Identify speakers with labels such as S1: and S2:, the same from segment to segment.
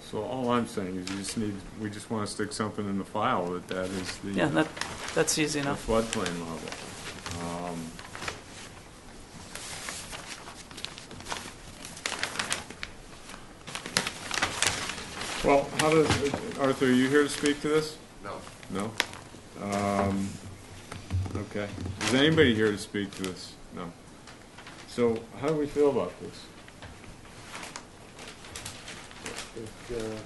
S1: So all I'm saying is you just need, we just want to stick something in the file that that is the.
S2: Yeah, that, that's easy
S1: the
S2: enough.
S1: floodplain level. Um, Well, how does, Arthur, are you here to speak to this?
S3: No.
S1: No? Um, okay. Is anybody here to speak to this? No. So how do we feel about this?
S3: If, uh,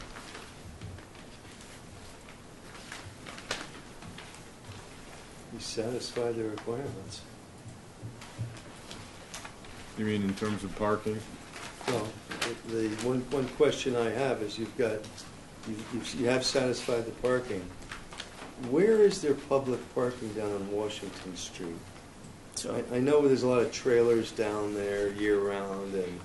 S3: You satisfy the requirements.
S1: You mean in terms of parking?
S3: Well, the, one, one question I have is you've got, you- you've- you have satisfied the parking. Where is there public parking down on Washington Street?
S2: So,
S3: I, I know there's a lot of trailers down there year-round and,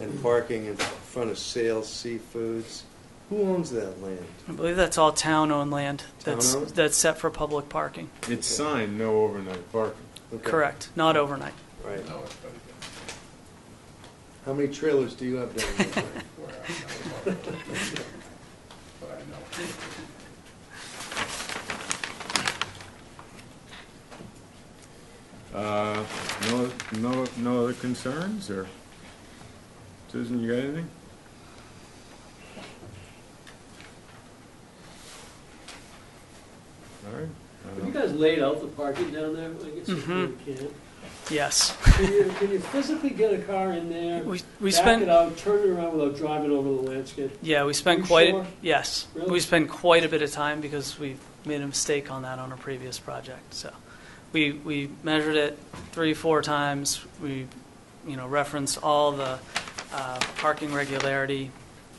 S3: and parking in front of Sales Seafoods. Who owns that land?
S2: I believe that's all town-owned land that's,
S3: Town-owned?
S2: that's set for public parking.
S1: It's signed, no overnight parking.
S3: Okay,
S2: Correct, not overnight.
S3: Right.
S4: No, it's better than
S3: How many trailers do you have down there?
S4: where I know about it. But I know.
S1: Uh, no, no, no other concerns, or? Susan, you got anything? All right. uh, I
S5: Have you
S1: don't-
S5: guys laid out the parking down there? I guess you
S2: Mm-hmm.
S5: really can't.
S2: Yes.
S5: Can you, can you physically get a car in there,
S2: We, we
S5: back it
S2: spent,
S5: out, turn it around without driving over the landscape?
S2: yeah, we spent
S5: You
S2: quite,
S5: sure?
S2: yes. We
S5: Really?
S2: spent quite a bit of time because we made a mistake on that on a previous project, so. We, we measured it three, four times. We, you know, referenced all the uh, parking regularity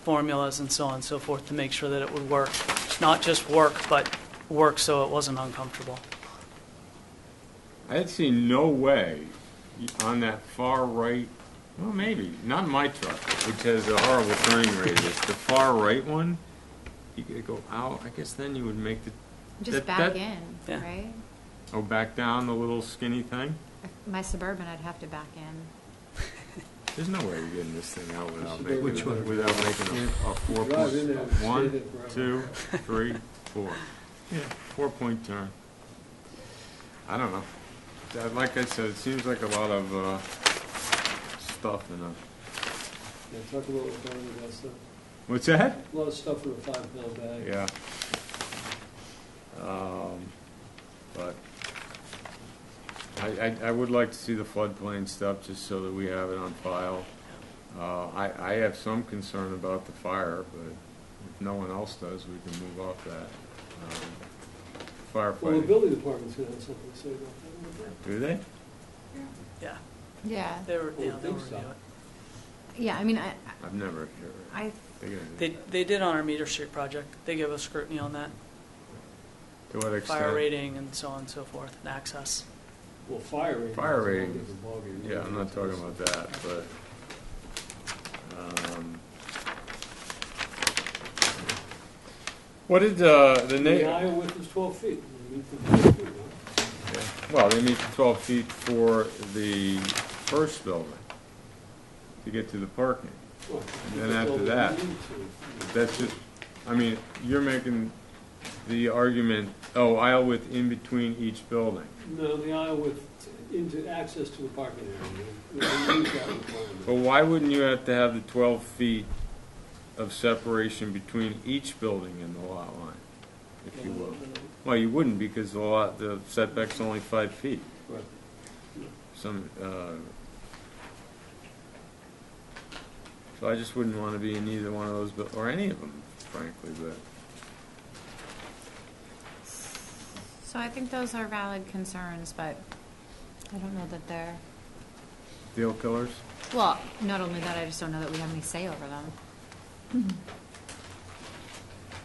S2: formulas and so on and so forth to make sure that it would work. Not just work, but work so it wasn't uncomfortable.
S1: I had seen no way on that far right, well, maybe, not my truck, which has a horrible turning radius. The far right one, you could go out, I guess then you would make the,
S6: Just
S1: That-
S6: back
S1: that-
S6: in,
S2: Yeah.
S6: right?
S1: oh, back down the little skinny thing?
S6: If My Suburban, I'd have to back in.
S1: There's no way you're getting this thing out without
S5: Which
S1: making,
S5: one?
S1: a- without making a, a four
S5: Drive in there and
S1: point,
S5: stay
S1: one,
S5: there forever.
S1: two, three, four. Yeah, four point turn. I don't know. That- Like I said, it seems like a lot of, uh, stuff in a,
S5: Yeah, talk about the parking, that stuff.
S1: what's that?
S5: A lot of stuff in a five pound bag.
S1: Yeah. Um, but I, I, I would like to see the floodplain stuff, just so that we have it on file. Uh, I, I have some concern about the fire, but if no one else does, we can move off that. Um,
S5: Well, the
S1: Firefighting,
S5: building department's gonna have something to say about that. won't
S1: do they?
S2: Yeah,
S6: Yeah,
S2: they were,
S5: I
S2: yeah,
S5: would
S2: they were.
S5: think so.
S2: yeah.
S6: yeah, I mean, I,
S1: I've never heard.
S6: I,
S1: They gonna-
S2: They, they did on our meter street project. They gave us scrutiny on that,
S1: To what
S2: fire
S1: extent?
S2: rating and so on and so forth, and access.
S5: they? Well, fire rating.
S1: Fire
S5: is a whole
S1: rating.
S5: different ballgame.
S1: Yeah, I'm not talking about that, but, um. What did, uh, the
S5: The
S1: na,
S5: aisle width is twelve feet. You meet the 12 feet, right?
S1: well, they need twelve feet for the first building to get to the parking.
S5: Well,
S1: Then
S5: you
S1: after
S5: build it
S1: that,
S5: you need to.
S1: That's just, I mean, you're making the argument, oh, aisle width in between each building.
S5: No, the aisle width into access to the parking area. We use that requirement.
S1: But why wouldn't you have to have the twelve feet of separation between each building and the lot line, if you will? Well, you wouldn't, because the lot, the setback's only five feet,
S5: Right.
S1: some, uh, so I just wouldn't wanna be in either one of those, bu- or any of them, frankly, but,
S6: so I think those are valid concerns, but I don't know that they're,
S1: deal killers?
S6: well, not only that, I just don't know that we have any say over them.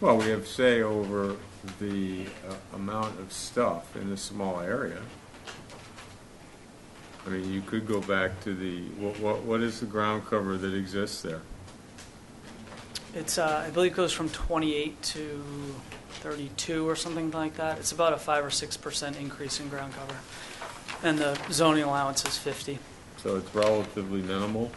S1: Well, we have say over the uh, amount of stuff in a small area. I mean, you could go back to the, what, what, what is the ground cover that exists there?
S2: It's, uh, I believe it goes from 28 to 32 or something like that. It's about a 5 or 6% increase in ground cover. And the zoning allowance is 50.
S1: So it's relatively minimal.